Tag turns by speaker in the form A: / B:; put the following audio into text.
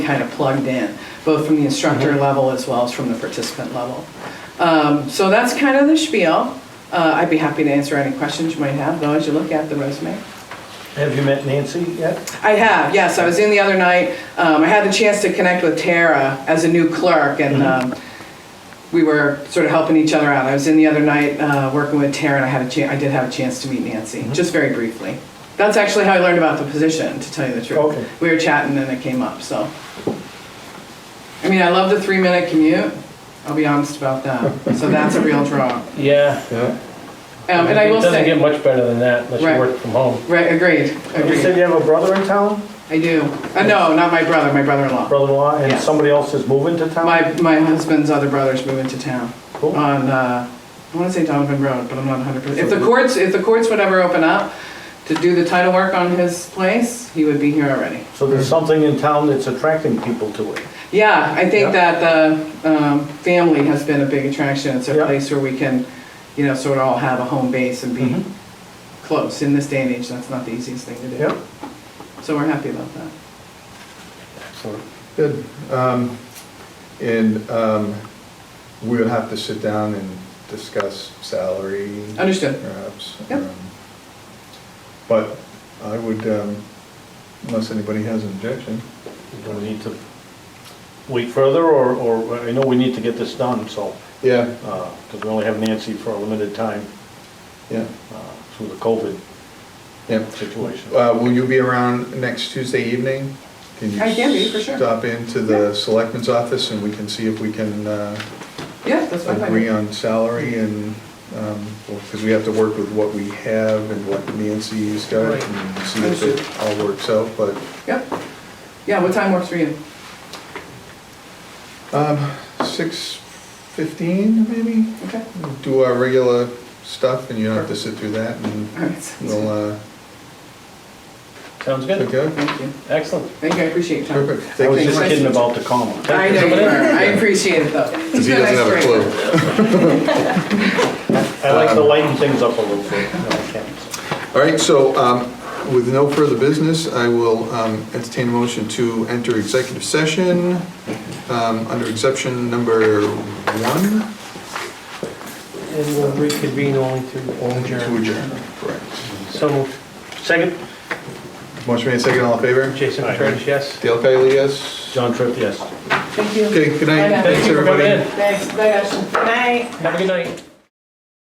A: kind of plugged in, both from the instructor level as well as from the participant level. Um, So that's kind of the spiel. Uh, I'd be happy to answer any questions you might have, though, as you look at the resume.
B: Have you met Nancy yet?
A: I have, yes, I was in the other night. Um, I had the chance to connect with Tara as a new clerk, and
C: Mm-hmm.
A: um, we were sort of helping each other out. I was in the other night uh, working with Tara, and I had a chan, I did have a chance to meet Nancy,
C: Mm-hmm.
A: just very briefly. That's actually how I learned about the position, to tell you the truth.
B: Okay.
A: We were chatting, and it came up, so. I mean, I love the three-minute commute, I'll be honest about that, so that's a real draw. Um,
B: Yeah.
A: And I will
C: It doesn't get
A: say,
C: much better than that unless
A: Right.
C: you work from home.
A: right, agreed,
B: You said
A: agreed,
B: you have a brother in town,
A: I do. Uh, No, not my brother, my brother-in-law.
B: brother-in-law, and
A: Yes.
B: somebody else is moving to town?
A: My, my husband's other brothers moving to town
B: Cool.
A: on, uh, I wanna say Donovan Road, but I'm not hundred percent. If the courts, if the courts would ever open up to do the title work on his place, he would be here already.
B: So there's something in town that's attracting people to it.
A: Yeah, I think
B: Yeah.
A: that the, um, family has been a big attraction. It's a
B: Yeah.
A: place where we can, you know, sort of all have a home base and be close. In this day and age, that's not the easiest thing to
B: Yep.
A: do. So we're happy about that.
D: Good. Um, And um, we would have to sit down and discuss salary,
A: Understood.
D: perhaps.
A: Yep.
D: Um, But I would, um, unless anybody has an objection,
B: Do we need to wait further, or, or, I know we need to get this done, so,
D: yeah,
B: because we only have Nancy for a limited time
D: yeah,
B: uh, through the COVID
D: yeah.
B: situation.
D: Uh, Will you be around next Tuesday evening? Can you
A: I can be, for sure.
D: Stop into the selectman's office and we can see if we can uh,
A: Yeah, that's fine. by me.
D: agree on salary and, because we have to work with what we have and what Nancy's got
A: Right.
D: and see if it all works out, but,
A: Yep. Yeah, what time works for you?
D: um, six fifteen maybe?
A: Okay.
D: We'll Do our regular stuff and you don't have to sit through that and
A: All right. sounds
D: we'll,
A: good.
D: uh,
C: Sounds good.
D: okay?
A: Thank you.
C: Excellent.
A: Thank you, I appreciate your time.
D: Perfect.
B: I
D: Thank
B: was
D: you.
B: just
A: Thank you.
B: kidding about the comma.
A: I know you are, I appreciate it though. It's been nice break.
B: I like to lighten things up a little bit. No, I can't.
D: All right, so um, with no further business, I will um, entertain a motion to enter executive session um, under exception number one.
E: And we'll reconvene only to
D: To
E: adjourn.
D: adjourn. Correct.
E: So moved.
B: Second?
D: Motion made second, all in favor?
E: Jason Petrowitch, yes?
D: Dale Kylie, yes?
B: John Tripp, yes.
A: Thank you.
D: Okay, good
A: Bye
D: night.
A: now.
D: Thanks,
C: Thank you for coming in.
D: everybody.
A: Thanks, bye Ashley.
C: Have a good night.